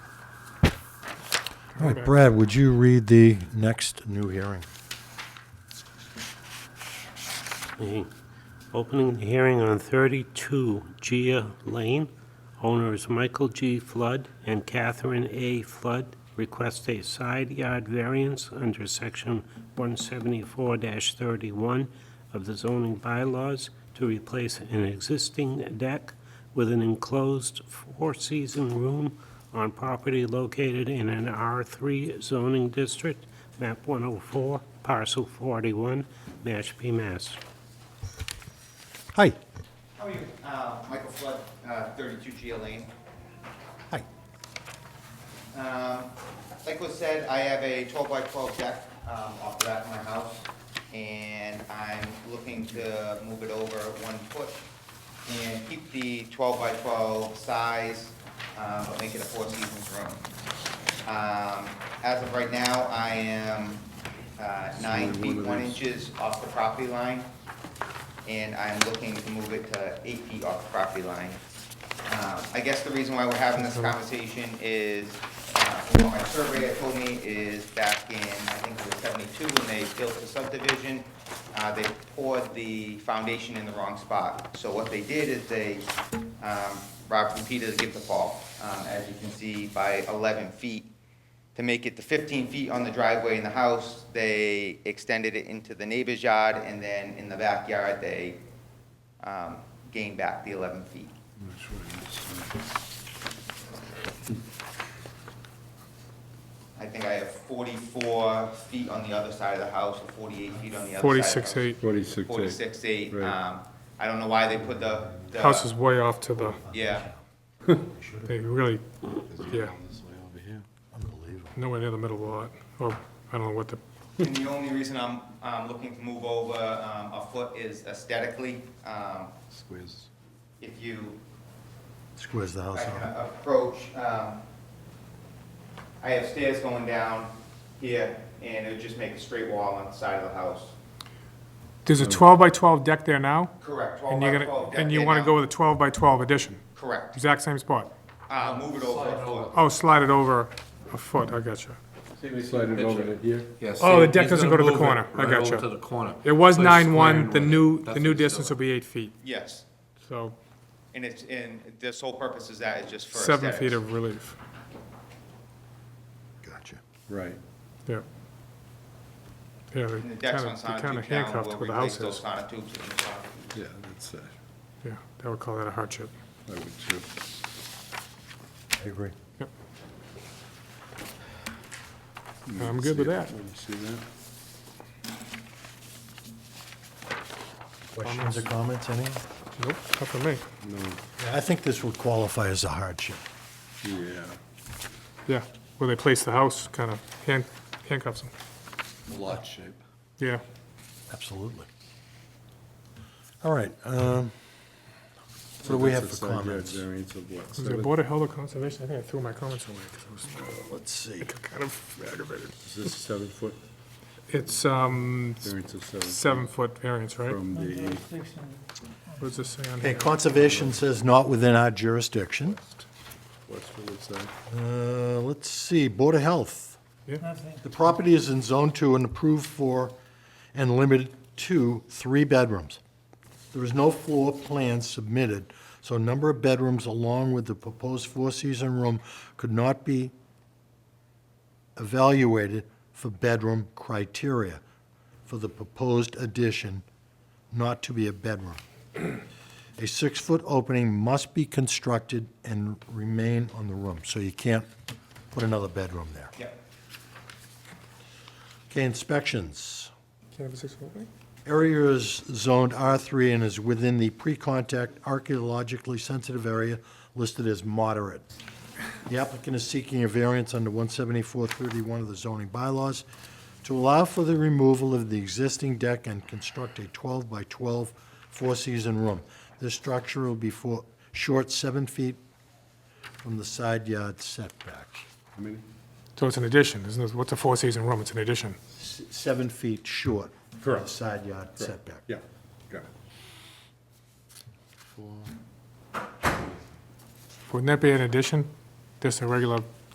All right, Brad, would you read the next new hearing? The Opening the hearing on 32 Gia Lane. Owners Michael G. Flood and Catherine A. Flood request a side yard variance under Section 174-31 of the zoning bylaws to replace an existing deck with an enclosed four-season room on property located in an R3 zoning district, map 104, parcel 41, Mashpee, Mass. Hi. How are you? Uh, Michael Flood, uh, 32 Gia Lane. Hi. Um, Like was said, I have a 12 by 12 deck um, off the back of my house, and I'm looking to move it over one foot and keep the 12 by 12 size, uh, but make it a four seasons room. Um, As of right now, I am uh, nine feet, one inches off the property line, and I'm looking to move it to eight feet off the property line. Um, I guess the reason why we're having this conversation is, uh, from what my surveyor told me is back in, I think it was seventy-two, when they built the subdivision, uh, they poured the foundation in the wrong spot. So what they did is they, um, Rob and Peter give the fall, um, as you can see, by eleven feet. To make it to fifteen feet on the driveway in the house, they extended it into the neighbor's yard, and then in the backyard, they, um, gained back the eleven feet. I think I have 44 feet on the other side of the house, or 48 feet on the other side. Forty-six eight. Forty-six eight. 46, 8. Right. Um, I don't know why they put the. the- House is way off to the, Yeah, they really, yeah, Unbelievable. nowhere near the middle lot, or I don't know what the, and the only reason I'm, um looking to move over um, a foot is aesthetically. Um, Squares. If you Squares the house I can off. approach, um, I have stairs going down here, and it would just make a straight wall on the side of the house. there's a Mm. twelve by twelve deck there now? Correct, 12 And by you're 12. gonna, yeah, and you yeah, wanna no, go with a twelve by twelve addition, Correct. exact same spot? Uh, Move it over a foot. Oh, slide it over a foot, I gotcha. Slide it over to here. Yes. Oh, the deck doesn't go to the corner. I Right over gotcha. to the corner. It was Place nine one, square the and new, one. the That's new what he's distance will doing. be eight feet, Yes, so and it's, and the sole purpose is that, it's just for seven feet aesthetics. of relief, Gotcha. Right. yeah. Yeah, they And the decks kinda, on they sonotube kinda now, handcuffed we'll where the replace house those is, sonotubes in the front. Yeah, that's, uh, yeah, I would call that a hardship. I would too. I agree. I'm good with See it. that. Let me see that. Questions or comments, any? Nope, not for me. Yeah, I think this would qualify as a hardship. Yeah, Yeah, where they place the house, kind of hand handcuffs them. lot shape. Yeah, Absolutely. All right, um, what do we have That's for a side yard comments? Variance of what, was it seven? Board of Health or Conservation? I think I threw my comments away 'cause I was Let's see. kind of aggravated. Is this seven foot, It's, um, variance of seven? seven-foot variance, right? From the eight. What does this say on Okay, here? conservation says not within our jurisdiction. What's the wood side? Uh, let's see, Board of Health. Yeah. The property is in Zone 2 and approved for and limited to three bedrooms. There is no floor plan submitted, so number of bedrooms along with the proposed four-season room could not be evaluated for bedroom criteria for the proposed addition not to be a bedroom. A six-foot opening must be constructed and remain on the room, so you can't put another bedroom there. Yep. Okay, inspections. Can't have a six-foot thing? Area is zoned R3 and is within the pre-contact archaeologically sensitive area listed as moderate. The applicant is seeking a variance under 17431 of the zoning bylaws to allow for the removal of the existing deck and construct a 12 by 12 four-season room. This structure will be four, short seven feet from the side yard setback. How many? So it's an addition, isn't it? What's a four-season room? It's an addition. S- Seven feet short from the Correct. side yard setback. Yeah, got it. Wouldn't that be an addition? Just a regular